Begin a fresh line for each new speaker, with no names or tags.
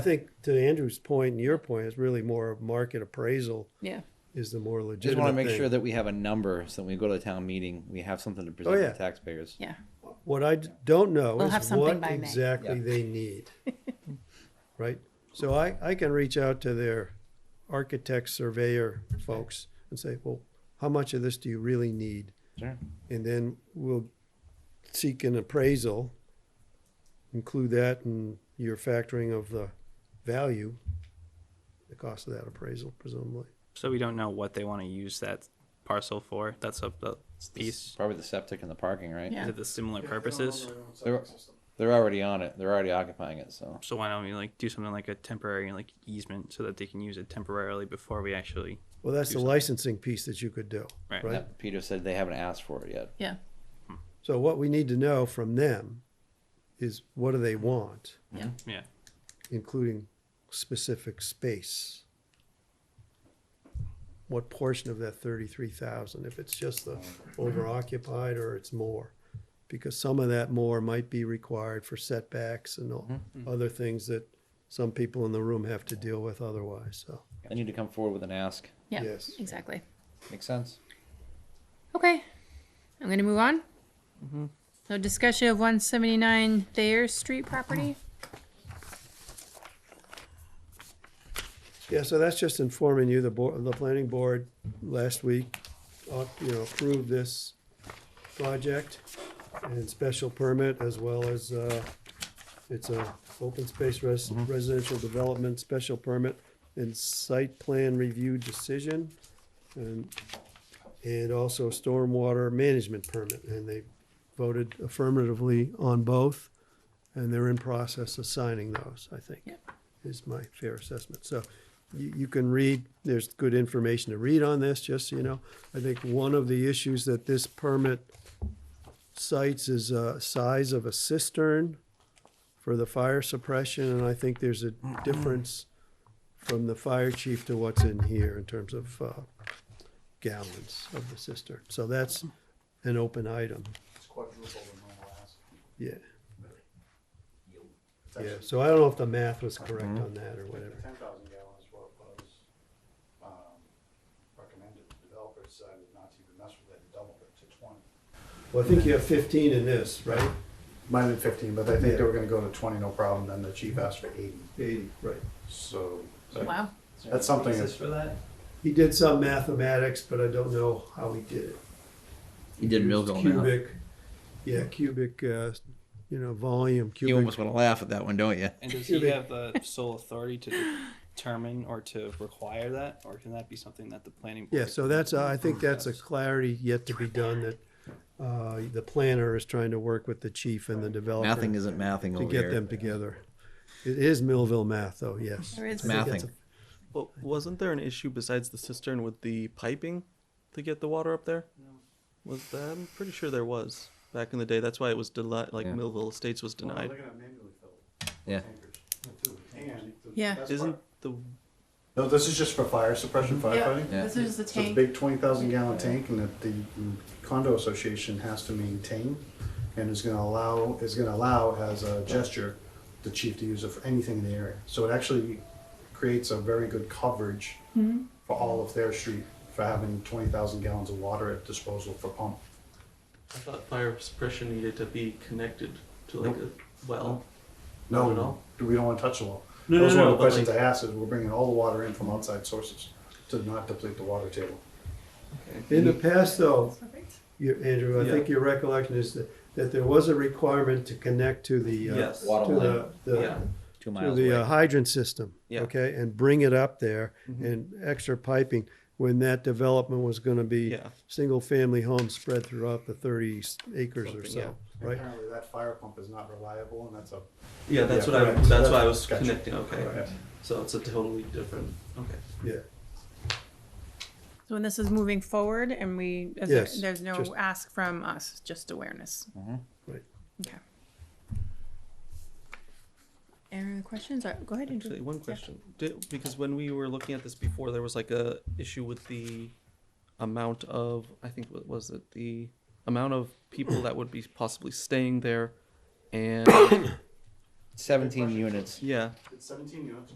I think to Andrew's point and your point, it's really more of market appraisal
Yeah.
is the more legitimate
Just want to make
thing.
sure that we have a number so that when we go to the town meeting, we have something to present
Oh, yeah.
to taxpayers.
Yeah.
What I d- don't know
We'll have
is
something
what
by May.
exactly
Yeah.
they need. Right? So I, I can reach out to their architect, surveyor folks and say, well, how much of this do you really need?
Sure.
And then we'll seek an appraisal, include that in your factoring of the value, the cost of that appraisal presumably.
So we don't know what they want to use that parcel for. That's a that's piece.
Probably the septic and the parking, right?
Yeah.
Is it the similar purposes?
They're, they're already on it. They're already occupying it, so.
So why don't we like do something like a temporary like easement so that they can use it temporarily before we actually
Well, that's the licensing piece that you could do,
Right.
right?
That- Peter said they haven't asked for it yet.
Yeah.
So what we need to know from them is what do they want,
yeah.
including specific space? What portion of that thirty-three thousand, if it's just the over occupied or it's more? Because some of that more might be required for setbacks and all- other things that some people in the room have to deal with otherwise, so.
They need to come forward with an ask.
Yeah.
Yes.
Exactly.
Makes sense?
Okay. I'm going to move on. So discussion of 179 Thayer Street property.
Yeah, so that's just informing you, the board, the planning board last week, uh, you know, approved this project and special permit as well as, uh, it's a open space res- residential development special permit and site plan review decision and, and also stormwater management permit. And they voted affirmatively on both and they're in process of signing those, I think
Yep.
is my fair assessment. So you, you can read, there's good information to read on this, just so you know. I think one of the issues that this permit cites is uh size of a cistern for the fire suppression, and I think there's a difference from the fire chief to what's in here in terms of, uh, gallons of the cistern. So that's an open item,
It's quadruple the normal ask.
yeah.
It's
Yeah,
actually
so I don't know if the math was correct on that or whatever.
ten thousand gallons what was, um, recommended. The developer decided not to even mess with it and doubled it to twenty.
Well, I think you have fifteen in this, right?
Might have been fifteen, but I think
Yeah.
they were gonna go to twenty, no problem, then the chief asked for eighty,
Eighty, right.
so.
Wow.
That's something that's-
for that?
He did some mathematics, but I don't know how he did it.
He did Millville now.
Cubic, yeah, cubic, uh, you know, volume,
You
cubic.
almost want to laugh at that one, don't you?
And does
he Excuse me. have
the sole authority to determine or to require that, or can that be something that the planning
Yeah, so that's, uh, I think that's a clarity yet to be done that, uh, the planner is trying to work with the chief and the developer
Mathing
to
isn't mathing over
get
here.
them together. It is Millville math, though, yes.
There is-
I think that's
Mathing.
But wasn't there an issue besides the cistern with the piping to get the water up there? No. Was that? I'm pretty sure there was back in the day. That's why it was denied. Like
Yeah.
Millville Estates was
Well, they're
denied.
gonna manually fill it,
Yeah.
tankers, too. And the
Yeah.
best
Isn't
part-
the
No, this is just for fire suppression firefighting.
Yeah.
This is the
So it's a
tank.
big twenty thousand gallon tank and that the condo association has to maintain and is gonna allow, is gonna allow as a gesture the chief to use it for anything in the area. So it actually creates a very good coverage
Mm-hmm.
for all of their street for having twenty thousand gallons of water at disposal for pump.
I thought fire suppression needed to be connected to like a well. Not at
No,
all.
we don't wanna touch the well.
No,
That was
no,
one of the
no, but
questions I
like-
asked is we're bringing all the water in from outside sources to not deplete the water table.
a- In the past, though,
Perfect.
you, Andrew, I
Yeah.
think your recollection is that, that there was a requirement to connect to the, uh,
Yes.
Water
to
line,
the, the,
Yeah.
two
to
miles
the uh,
away.
hydrant system,
Yeah. Mm-hmm.
okay, and bring it up there and extra piping when that development was gonna be
Yeah.
single-family homes spread throughout the thirty acres or
Something, yeah.
so, right?
Apparently that fire pump is not reliable and that's a
Yeah, that's
Yeah,
what I.
correct.
That's, why I was
Gotcha.
connecting. Okay.
Correct.
So it's a totally different. Okay.
Yeah,
So when this is moving forward and we, is there-
Yes,
there's no
just-
ask from us, just awareness.
right.
Okay. Any other questions? Uh, Go ahead and
Actually, one question. Did, because when we were looking at this before, there was like a issue with the amount of I think what was it the amount of people that would be possibly staying there, and
seventeen units.
Yeah.
It's seventeen units.